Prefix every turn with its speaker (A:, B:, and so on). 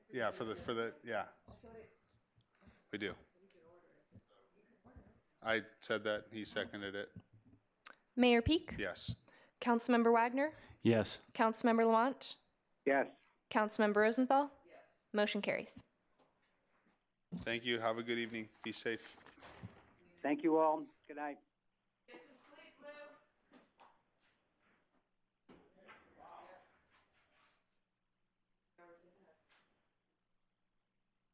A: yeah, for the, for the, yeah. We do. I said that, he seconded it,
B: Mayor Peak,
A: yes.
B: Councilmember Wagner,
C: Yes.
B: Councilmember Lamont,
D: Yes.
B: Councilmember Rosenthal. Motion carries.
A: Thank you, have a good evening, be safe.
D: Thank you all. Good night.